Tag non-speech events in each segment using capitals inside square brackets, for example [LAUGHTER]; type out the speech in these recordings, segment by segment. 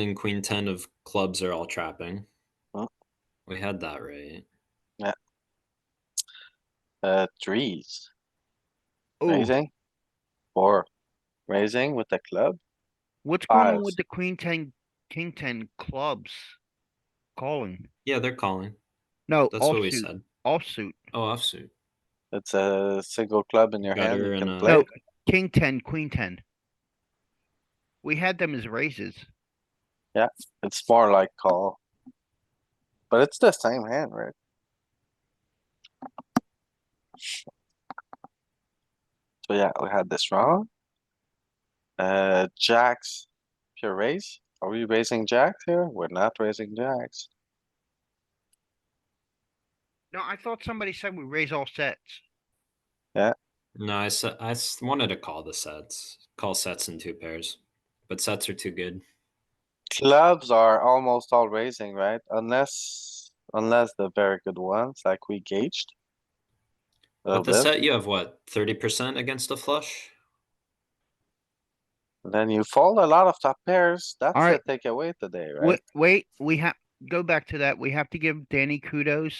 and queen ten of clubs are all trapping. Huh? We had that right. Uh, threes, Oh, raising. Four, raising with the club. what's going on fives. with the queen ten, king ten clubs? Calling. Yeah, they're calling. No, That's what we offsuit, said. offsuit. Oh, offsuit. It's a single club in your hand. Gutter You and can a- play. No, king ten, queen ten. We had them as raises. It's more like call. But it's the same hand, right? So yeah, we had this wrong. Uh, jacks, pure raise. Are we raising jacks here? We're not raising jacks. No, I thought somebody said we raise all sets. No, I said I s- wanted to call the sets. Call sets in two pairs, but sets are too good. Clubs are almost all raising, right? Unless, unless the very good ones, like we gauged. A With the little bit, set, you have what thirty percent against a flush. then you fold a lot of top pairs. That's the Alright. takeaway today, right? Wait, wait, we have, go back to that. We have to give Danny kudos.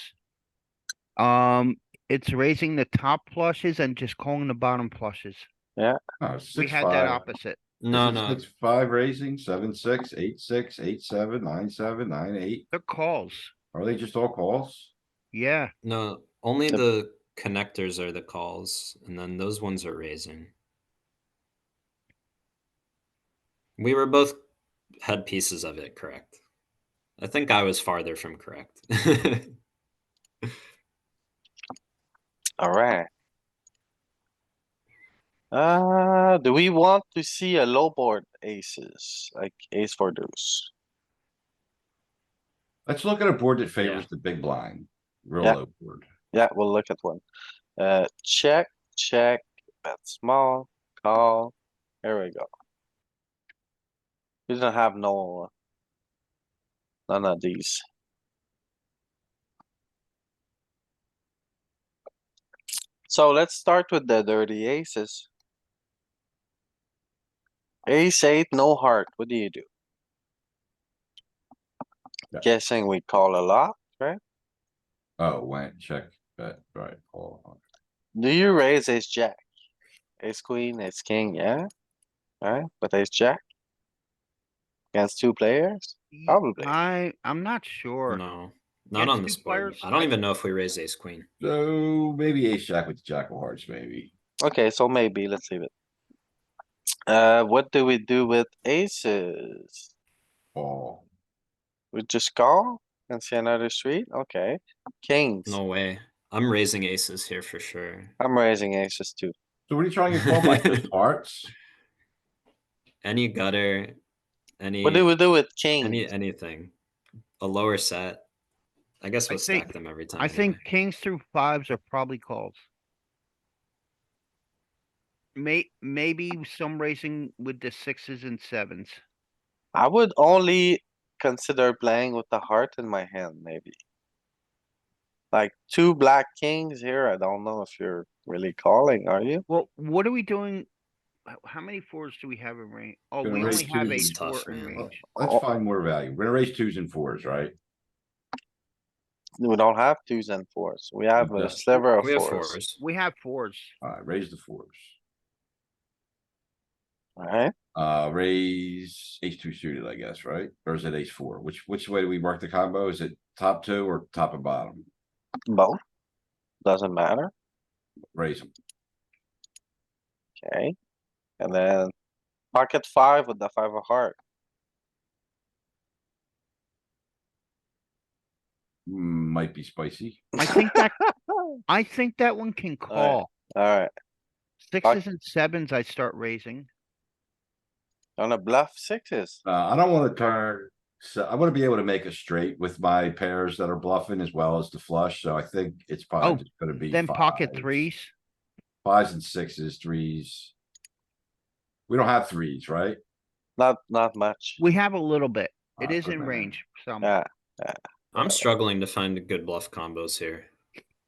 Um, it's raising the top flushes and just calling the bottom flushes. Oh, We six, had that five. opposite. No, This is no, Six, five raising, seven, six, eight, six, eight, seven, nine, seven, nine, eight. They're calls. Are they just all calls? Yeah. no. Only The- the connectors are the calls, and then those ones are raising. We were both had pieces of it correct. I think I was farther from correct. [LAUGHS] Alright. Uh, do we want to see a low board aces, like ace four deuce? Let's look at a board that Yeah. favors the big blind. Real Yeah. low board. Yeah, we'll look at one. Uh, check, check, bet small, call, here we go. We don't have no. None of these. So let's start with the dirty aces. Ace eight, no heart, what do you do? Yeah. Guessing we call a lot, Oh, went, check, bet, right, call. do you raise ace jack? Ace queen, ace king, yeah? Alright, but ace jack? Against two players? Ye- Probably. I, I'm not sure. no, not on Against this two board. players, I don't I- even know if we raise ace queen. So maybe ace jack with jack of hearts, maybe. Okay, so maybe, let's leave it. Uh, what do we do with aces? Call. We just call and see another street? Okay. Kings, No way. I'm raising aces here for sure. I'm raising aces too. So what are you trying to call [LAUGHS] by just hearts? Any gutter, any What do we do with king? any anything, a lower set. I guess I we'll stack think- them every time. I think anyway. kings through fives are probably calls. May, maybe some racing with the sixes and sevens. I would only consider playing with the heart in my hand, maybe. Like two black kings here, I don't know if you're really calling, are you? Well, what are we doing? h- How many fours do we have in range? Oh, Gonna we raise only have a twos. four Tough, in man. range. Let's Oh. find more value. We're gonna raise twos and fours, right? We don't have twos and fours. We have Yeah. a sliver of we have fours, fours. We have [LAUGHS] fours. Alright, raise the fours. alright? Uh, raise ace two suited, I guess, right? Or is it ace four? Which, which way do we work the combo? Is it top two or top and bottom? Both. Doesn't matter, Raise them. okay? And then pocket five with the five of heart. Might be spicy. I think that, I think that one can call. Alright, Sixes and sevens I start raising. on a bluff sixes, Uh, I don't wanna turn, so I wanna be able to make a straight with my pairs that are bluffing as well as the flush, so I think it's Oh, probably just gonna be. Then pocket fives. threes. Fives and sixes, threes. We don't have threes, right? not, not much. We have a little bit. It Ah, is good Uh, in man. range, some. Yeah, I'm struggling to find good bluff combos here.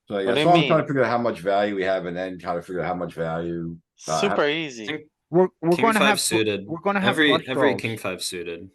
So do yeah, you so I'm trying mean? to figure out how much value we have and then try to figure out how much value. Uh, super easy. We're, we're King gonna five have, fl- suited. we're gonna have every flush every draws. king five suited.